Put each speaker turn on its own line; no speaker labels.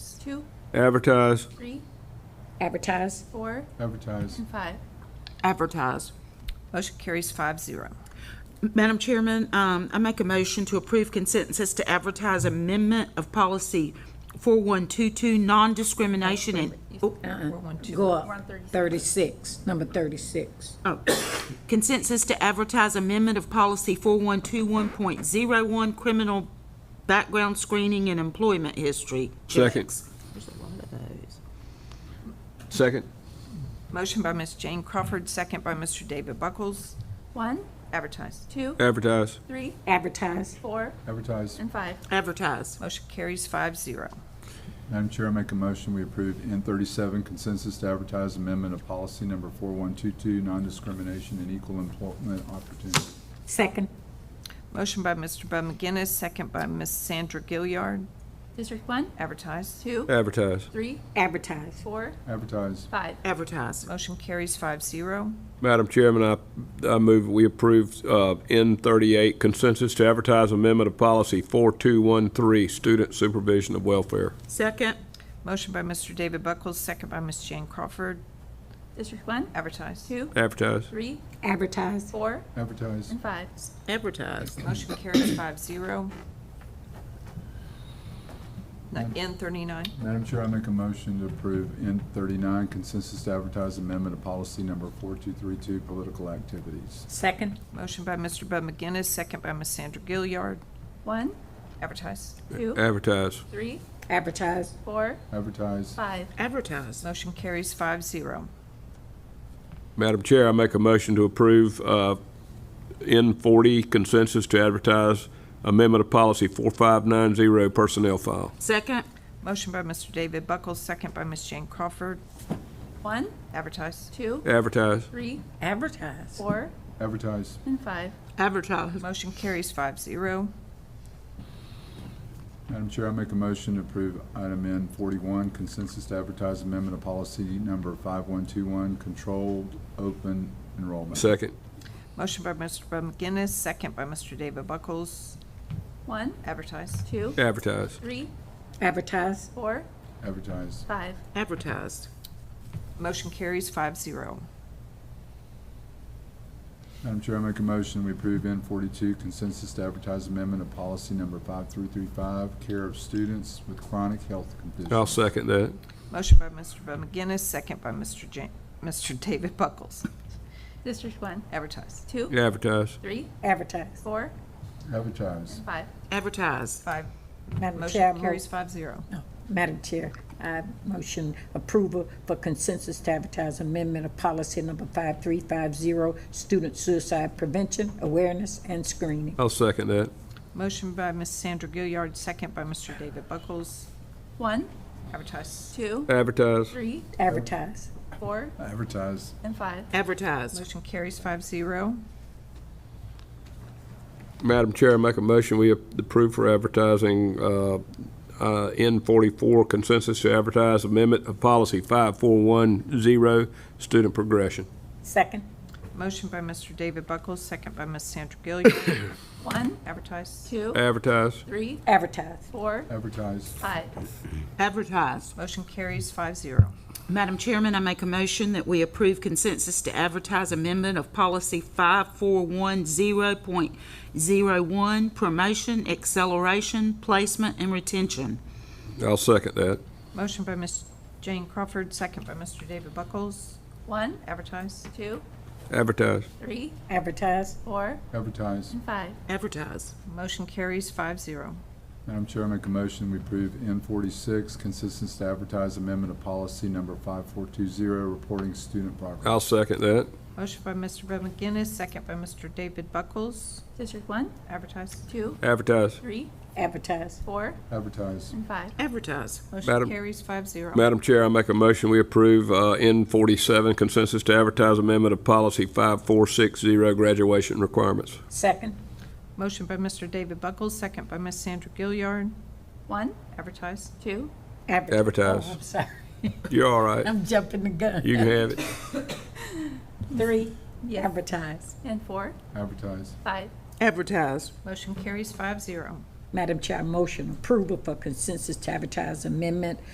two,
advertise,
three,
advertise,
four,
advertise,
and five.
Advertise.
Motion carries five zero.
Madam Chairman, um, I make a motion to approve consensus to advertise amendment of policy 4122, non-discrimination and, oh,
Uh-uh.
go up, 36, number 36.
oh, consensus to advertise amendment of policy 4121.01, criminal background screening and employment history.
Second.
checks.
second,
Motion by Ms. Jane Crawford, second by Mr. David Buckles.
One,
Advertise.
two,
advertise,
three,
Advertise,
four,
advertise.
and five.
Advertise.
Motion carries five zero.
Madam Chair, I make a motion, we approve N thirty-seven consensus to advertise amendment of policy number four-one-two-two, non-discrimination and equal employment opportunity.
second,
Motion by Mr. Bud McGinnis, second by Ms. Sandra Gilliard.
District one,
Advertise.
two,
advertise.
three,
advertise,
four,
Advertise,
five.
Advertise.
Motion carries five zero.
Madam Chairman, I, I move we approve uh, N38 consensus to advertise amendment of policy 4213, student supervision of welfare.
Second.
Motion by Mr. David Buckles, second by Ms. Jane Crawford.
District one,
Advertise.
two,
Advertise,
three,
advertise,
four,
advertise,
and five.
Advertise.
Motion carries five zero. N thirty-nine.
Madam Chair, I make a motion to approve N thirty-nine consensus to advertise amendment of policy number four-two-three-two, political activities.
second,
Motion by Mr. Bud McGinnis, second by Ms. Sandra Gilliard.
One,
Advertise.
two,
advertise,
three,
advertise,
four,
Advertise,
five.
Advertise.
Motion carries five zero.
Madam Chair, I make a motion to approve uh, N40 consensus to advertise amendment of policy 4590, personnel file.
Second.
Motion by Mr. David Buckles, second by Ms. Jane Crawford.
One,
Advertise.
two,
Advertise,
three,
advertise,
four,
advertise,
and five.
Advertise.
Motion carries five zero.
Madam Chair, I make a motion to approve item N forty-one, consensus to advertise amendment of policy number five-one-two-one, controlled open enrollment.
second,
Motion by Mr. Bud McGinnis, second by Mr. David Buckles.
One,
Advertise.
two,
advertise,
three,
advertise,
four,
Advertise,
five.
Advertised.
Motion carries five zero.
Madam Chair, I make a motion, we approve N forty-two, consensus to advertise amendment of policy number five-three-three-five, care of students with chronic health
I'll
conditions.
second that.
Motion by Mr. Bud McGinnis, second by Mr. Ja- Mr. David Buckles.
District one,
Advertise.
two,
Advertise,
three,
advertise.
four,
Advertise,
and five.
Advertise.
Five,
Madam Chair, I
motion
move-
carries five zero.
Madam Chair, I motion approval for consensus to advertise amendment of policy number 5350, student suicide prevention, awareness, and screening.
I'll second that.
Motion by Ms. Sandra Gilliard, second by Mr. David Buckles.
One,
Advertise.
two,
Advertise,
three,
Advertise,
four,
advertise,
and five.
Advertised.
Motion carries five zero.
Madam Chair, I make a motion, we approve for advertising uh, uh, N44 consensus to advertise amendment of policy 5410, student progression.
second,
Motion by Mr. David Buckles, second by Ms. Sandra Gilliard.
One,
Advertise.
two,
Advertise,
three,
advertise,
four,
advertise,
five.
Advertised.
Motion carries five zero.
Madam Chairman, I make a motion that we approve consensus to advertise amendment of policy 5410.01, promotion, acceleration, placement, and retention.
I'll second that.
Motion by Ms. Jane Crawford, second by Mr. David Buckles.
One,
Advertise.
two,
Advertise,
three,
advertise,
four,
advertise.
and five.
Advertise.
Motion carries five zero.
Madam Chair, I make a motion, we approve N forty-six, consensus to advertise amendment of policy number five-four-two-zero, reporting student progress.
I'll second that.
Motion by Mr. Bud McGinnis, second by Mr. David Buckles.
District one,
Advertise.
two,
Advertise.
three,
advertise,
four,
Advertise,
and five.
Advertise.
Motion
Madam-
carries five zero.
Madam Chair, I make a motion, we approve uh, N47 consensus to advertise amendment of policy 5460, graduation requirements.
second,
Motion by Mr. David Buckles, second by Ms. Sandra Gilliard.
One,
Advertise.
two,
advertise.
Advertise.
Oh, I'm sorry,
You're all right.
I'm jumping the gun.
You can have it.
Three, advertise.
and four,
advertise,
five.
Advertise.
Motion carries five zero.
Madam Chair, I motion approval for consensus to advertise amendment